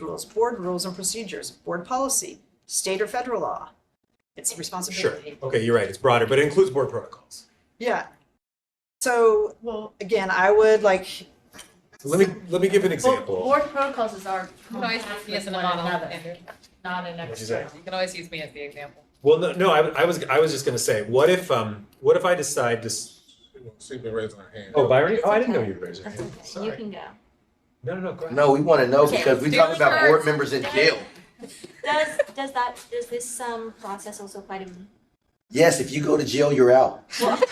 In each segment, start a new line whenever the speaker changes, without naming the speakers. rules, board rules and procedures, board policy, state or federal law. It's
Sure.
responsibility.
Okay, you're right. It's broader, but it includes board protocols.
Yeah. So, well, again, I would like,
So let me let me give an example.
Board protocols is our.
You can always use me as an
with one
model,
another,
Andrew.
Not an
What'd you
external.
You can always use me as the example.
Well, no, no. I, I was I was just gonna say, what if um what if I decide to? s-
She's been raising her hand.
Oh, Byron. Oh, I didn't know you were raising your hand.
You
Sorry.
can go.
No, no, no. Go ahead.
No, we want to know because we
Okay.
talking about board
Steelers.
members in jail.
Does, does that, does this, um, process also apply to me?
Yes, if you go to jail, you're out.
But,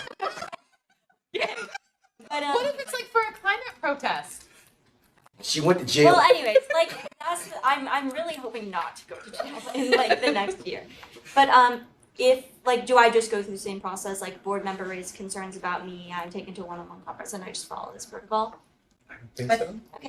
um,
What if it's like for a climate protest?
She went to
well,
jail.
anyways, like, that's, I'm, I'm really hoping not to go to jail in like the next year. But, um, if, like, do I just go through the same process, like, board member raised concerns about me, I'm taken to one-on-one conference, and I just follow this protocol?
Think
but-
so?
I
You-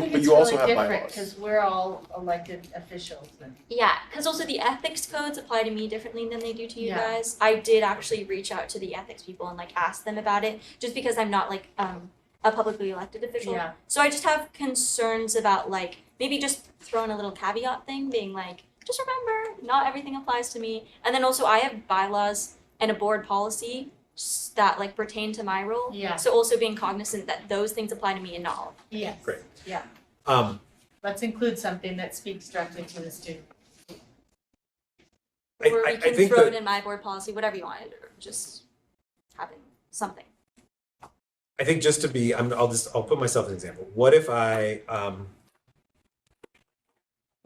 think
but
it's
you also
really
have
different
bylaws.
because we're all elected officials and.
Yeah, because also the ethics codes apply to me differently than they do to you
Yeah.
guys. I did actually reach out to the ethics people and like ask them about it, just because I'm not like um a publicly elected official.
Yeah.
So I just have concerns about like maybe just throwing a little caveat thing, being like, just remember, not everything applies to me. And then also I have bylaws and a board policy s- that like pertain to my role.
Yeah.
So also being cognizant that those things apply to me and not all.
Yes.
Great.
Yeah,
Um,
let's include something that speaks directly to the student.
I,
or
I,
we
I
can
think
throw
that
it in my board policy, whatever you want, or just have it, something.
I think just to be, I'm, I'll just, I'll put myself as an example. What if I, um,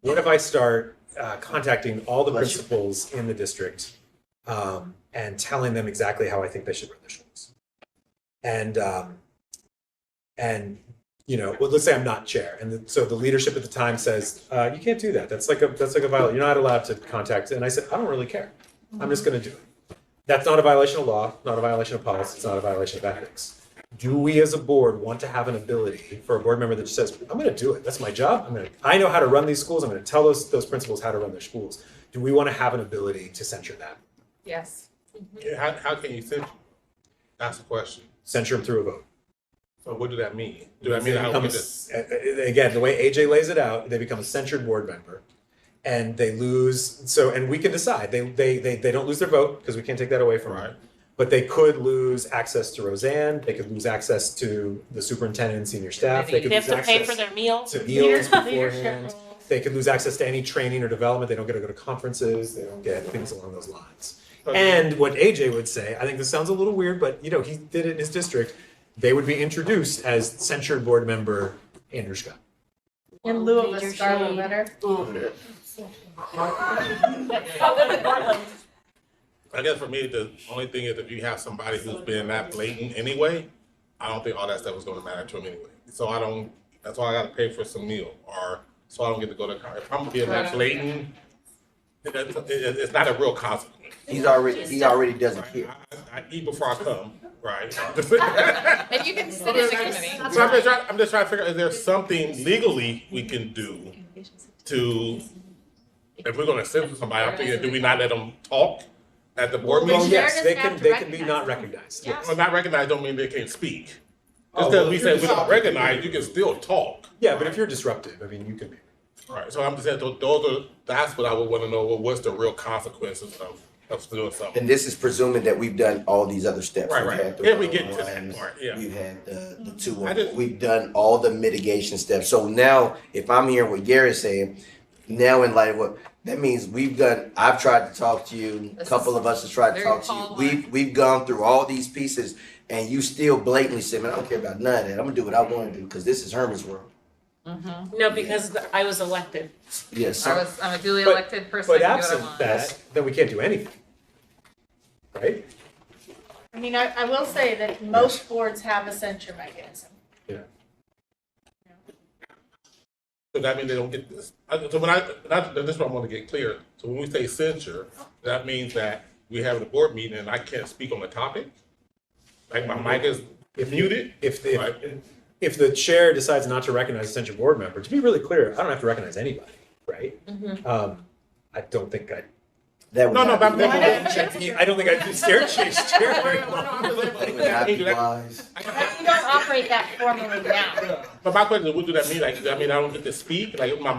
what if I start uh, contacting all the
Bless you.
principals in the district um, and telling them exactly how I think they should run their schools? And, um, and, you know, well, let's say I'm not chair. And the, so the leadership at the time says, uh, you can't do that. That's like a, that's like a violation. You're not allowed to contact. And I said, I don't really care. I'm
Mm-hmm.
just going to do it. That's not a violation of law, not a violation of policy, it's not a violation of ethics do we as a board want to have an ability for a board member that just says, I'm gonna do it, that's my job, I'm gonna, I know how to run these schools, I'm gonna tell those, those principals how to run their schools. Do we wanna have an ability to censure that,
Yes.
Yeah, How, how can you censure? That's the question.
censure them through a vote?
So what do that mean? Do that mean I don't get to?
Becomes- a- a- Again, the way AJ lays it out, they become a censured board member. And they lose, so, and we can decide, they, they, they, they don't lose their vote, because we can't take that away from
Right.
them. But they could lose access to Roseanne, they could lose access to the superintendent and senior staff, they could
They have
lose
to pay for
access
their meals.
to meals
Leader-
beforehand.
Leadership roles.
they could lose access to any training or development. They don't get to go to conferences. They don't get things along those lines. And what AJ would say, I think this sounds a little weird, but you know, he did it in his district. They would be introduced as censured board member Andrushka.
In lieu of a
Major
scarlet
shade.
letter.
I guess for me, the only thing is if you have somebody who's been that blatant anyway, I don't think all that stuff is gonna matter to them anyway. So I don't, that's why I gotta pay for some meal or, so I don't get to go to, con- if I'm being that blatant, it, it, it- it's not a real consequence.
He's already, he already doesn't
right?
care.
I, I eat before I come, right?
And you can sit as a committee.
So I'm just trying, I'm just trying to figure, out, is there something legally we can do to, if we're gonna censor somebody, I'm thinking, do we not let them talk at the board
Well,
meeting?
yes,
doesn't
they
have
can.
to
They can be
recognize
not
them.
recognized.
Yeah.
Yes.
Well, not recognized don't mean they can't speak. Just
Oh,
because
well,
we
if
said
you're
we don't
talking-
recognize, you can still talk.
Yeah, but if you're disruptive, I mean, you can be.
Right, so I'm just saying, tho- those are, that's what I would wanna know, well, what's the real consequences of, of doing something?
And this is presuming that we've done all these other steps.
Right,
We've
right.
had the
If we get to that
one-on-ones,
part, yeah.
We've had the,
Mm-hmm.
the two,
I just-
we've done all the mitigation steps. So now, if I'm hearing what Gary's saying, now in light of what, that means we've done, I've tried to talk to you, a
This
couple
is
of us have tried to
very
talk to you.
tall
We've, we've gone through all these pieces and you still blatantly said, man, I don't care about none of that. I'm gonna do what I wanna do, cause this is Herman's world.
No, because I was elected.
Yes,
I
sir.
was, I'm a duly
But-
elected person. I
But
can do what I
absent
want.
that, then we can't do anything, right?
I mean, I, I will say that most boards have a censure mechanism.
So that means they don't get this, I- so when I, that, this is what I wanna get clear, so when we say censure, that means that we have a board meeting and I can't speak on the topic? Like my mic is muted?
If the,
Right.
if, if the chair decides not to recognize a central board member, to be really clear, I don't have to recognize anybody, right? Um, I don't think I,
That would
No, no,
not
but
be-
I'm thinking-
I don't think I'd be stair chase chair.
that would not be wise.
We don't operate that formally now.
But my question is, what do that mean? Like, I mean, I don't get to speak, like, my